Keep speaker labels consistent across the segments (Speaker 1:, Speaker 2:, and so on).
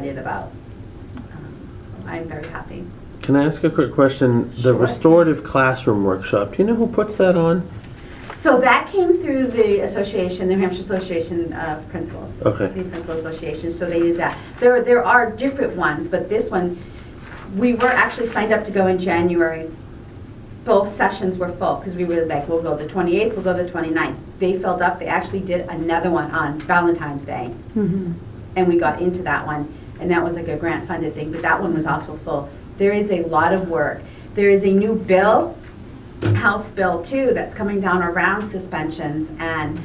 Speaker 1: excited about. Um, I'm very happy.
Speaker 2: Can I ask a quick question? The
Speaker 1: Sure.
Speaker 2: restorative classroom workshop, do you know who puts that on?
Speaker 1: So that came through the association, the New Hampshire Association of Principals.
Speaker 2: Okay.
Speaker 1: The Principal Association, so they did that. There, there are different ones, but this one, we were actually signed up to go in January. Both sessions were full, because we were like, we'll go the 28th, we'll go the 29th. They filled up, they actually did another one on Valentine's Day. and we got into that one, and that was like a grant-funded thing, but that one was also full. There is a lot of work. There is a new bill, House Bill 2, that's coming down around suspensions, and,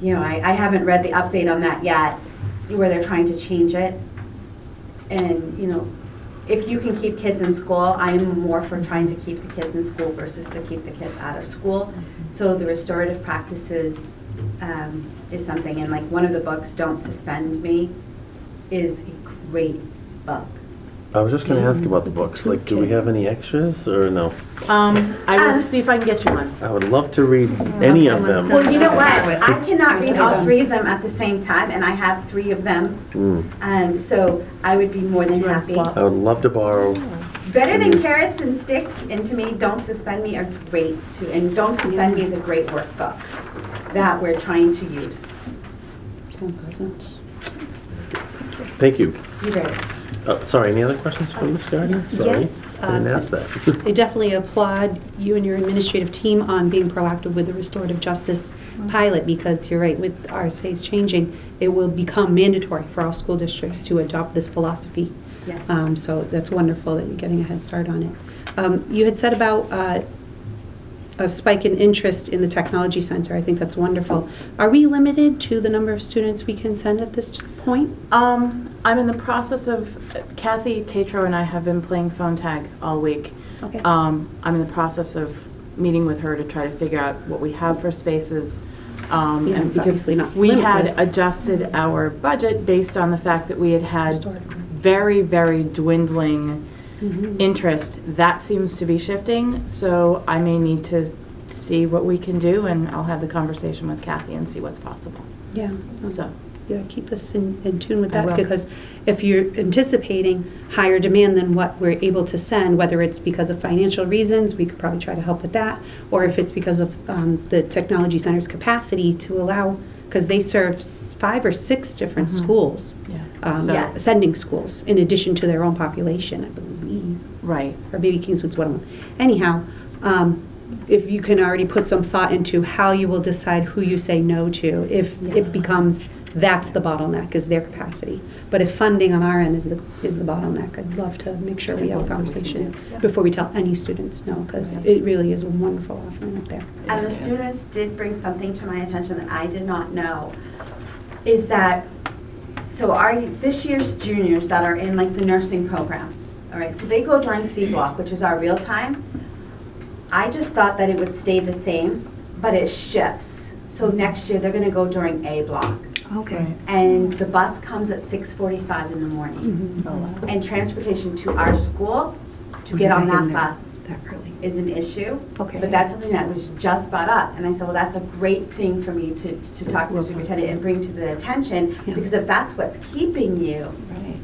Speaker 1: you know, I, I haven't read the update on that yet, where they're trying to change it. And, you know, if you can keep kids in school, I am more for trying to keep the kids in school versus to keep the kids out of school. So the restorative practices um, is something, and like one of the books, Don't Suspend Me, is a great book.
Speaker 2: I was just gonna ask about the
Speaker 3: It's a
Speaker 2: books, like, do we
Speaker 3: toolkit.
Speaker 2: have any extras, or no?
Speaker 3: Um, I will
Speaker 1: Um,
Speaker 3: see if I can get you one.
Speaker 2: I would love to read any of
Speaker 3: someone's
Speaker 2: them.
Speaker 3: done-
Speaker 1: Well, you know what?
Speaker 3: Wait.
Speaker 1: I cannot read all
Speaker 3: Done.
Speaker 1: three of them at the same time, and I have three of them,
Speaker 2: Mm.
Speaker 1: um, so I would be more than
Speaker 3: You wanna
Speaker 1: happy.
Speaker 3: swap?
Speaker 2: I would love to borrow,
Speaker 1: Better than Carrots and Sticks, and to me, Don't Suspend Me are great, too. and Don't Suspend Me is a great workbook that we're trying to use.
Speaker 2: thank you.
Speaker 1: You ready?
Speaker 2: Uh, Sorry, any other questions from Ms. Gardner? Sorry,
Speaker 4: Yes,
Speaker 2: I didn't
Speaker 4: uh,
Speaker 2: ask that.
Speaker 4: I definitely applaud you and your administrative team on being proactive with the restorative justice pilot, because you're right, with RSA's changing, it will become mandatory for all school districts to adopt this philosophy.
Speaker 1: Yes.
Speaker 4: Um, So that's wonderful that you're getting a head start on it. Um, You had said about uh, a spike in interest in the technology center. I think that's wonderful. Are we limited to the number of students we can send at this point?
Speaker 3: Um, I'm in the process of, Kathy Tatro and I have been playing phone tag all week.
Speaker 4: Okay.
Speaker 3: Um, I'm in the process of meeting with her to try to figure out what we have for spaces. Um,
Speaker 4: Yeah,
Speaker 3: and
Speaker 4: it's
Speaker 3: because
Speaker 4: obviously not
Speaker 3: We had
Speaker 4: limitless.
Speaker 3: adjusted our budget based on the fact that we had had
Speaker 4: Restored.
Speaker 3: very, very dwindling
Speaker 4: Mhm.
Speaker 3: Mm-hmm. interest. That seems to be shifting, so I may need to see what we can do, and I'll have the conversation with Kathy and see what's possible.
Speaker 4: Yeah.
Speaker 3: So,
Speaker 4: Yeah, keep us in, in tune with
Speaker 3: I
Speaker 4: that,
Speaker 3: will.
Speaker 4: because if you're anticipating higher demand than what we're able to send, whether it's because of financial reasons, we could probably try to help with that, or if it's because of um, the technology center's capacity to allow, because they serve s- five or six different
Speaker 3: Mhm.
Speaker 4: schools,
Speaker 3: yeah.
Speaker 4: um,
Speaker 3: So,
Speaker 1: Yeah.
Speaker 4: sending schools, in addition to their own population, I believe
Speaker 3: right.
Speaker 4: or maybe Kingswood's one of them. Anyhow, um, if you can already put some thought into how you will decide who you say no to, if
Speaker 3: Yeah.
Speaker 4: it becomes, that's the bottleneck, is their capacity. But if funding on our end is the, is the bottleneck, I'd love to make sure we
Speaker 3: That's what
Speaker 4: have a
Speaker 3: we can
Speaker 4: conversation
Speaker 3: do. Yeah.
Speaker 4: before we tell any students no, because
Speaker 3: Right.
Speaker 4: it really is a wonderful offering up there.
Speaker 1: And the students did bring something to my attention that I did not know, is that, so our, this year's juniors that are in like the nursing program, all right, so they go during C block, which is our real time. I just thought that it would stay the same, but it shifts. So next year, they're gonna go during A block,
Speaker 3: Right.
Speaker 1: and the bus comes at six forty-five in the morning.
Speaker 4: Mhm.
Speaker 3: Oh, wow.
Speaker 1: And transportation to our school to get on that bus is an issue.
Speaker 4: Okay.
Speaker 1: But that's something that was just brought up, and I said, well, that's a great thing for me to, to talk to the superintendent and bring to the attention,
Speaker 4: Yeah.
Speaker 1: because if that's what's keeping you,
Speaker 4: Right.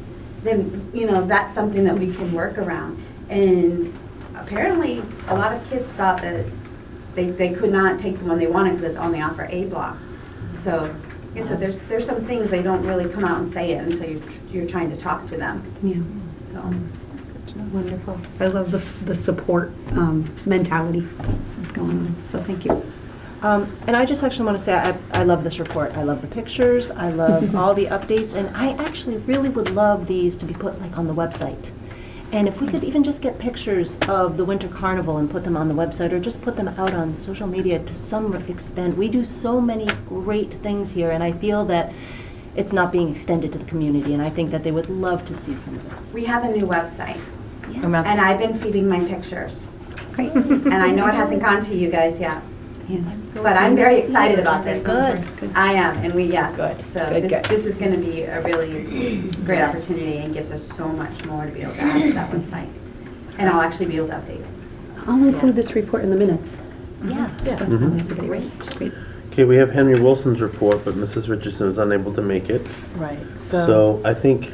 Speaker 1: then, you know, that's something that we can work around. And apparently, a lot of kids thought that they, they could not take the one they wanted because it's only off for A block. So, like I said, there's, there's some things they don't really come out and say it until you're, you're trying to talk to them,
Speaker 4: Yeah.
Speaker 1: so.
Speaker 4: Wonderful. I love the, the support um, mentality going on, so thank you.
Speaker 5: Um, And I just actually want to say, I I love this report. I love the pictures, I love all the updates, and I actually really would love these to be put like on the website. And if we could even just get pictures of the Winter Carnival and put them on the website, or just put them out on social media to some extent. We do so many great things here, and I feel that it's not being extended to the community, and I think that they would love to see some of this.
Speaker 1: We have a new website,
Speaker 3: And that's-
Speaker 1: and I've been feeding my pictures.
Speaker 4: Great.
Speaker 1: And I know it hasn't gone to you guys yet,
Speaker 4: Yeah.
Speaker 1: but I'm very excited about this.
Speaker 5: Good.
Speaker 1: I am, and we, yes.
Speaker 5: Good,
Speaker 1: So
Speaker 5: good,
Speaker 1: this,
Speaker 5: good.
Speaker 1: this is going to be a really great opportunity and gives us so much more to be able to add to that website. And I'll actually be able to update it.
Speaker 4: I'll include this report in the minutes.
Speaker 5: Yeah.
Speaker 3: Yeah.
Speaker 4: Great. Great.
Speaker 2: Okay, we have Henry Wilson's report, but Mrs. Richardson was unable to make it.
Speaker 3: Right, so.
Speaker 2: So I think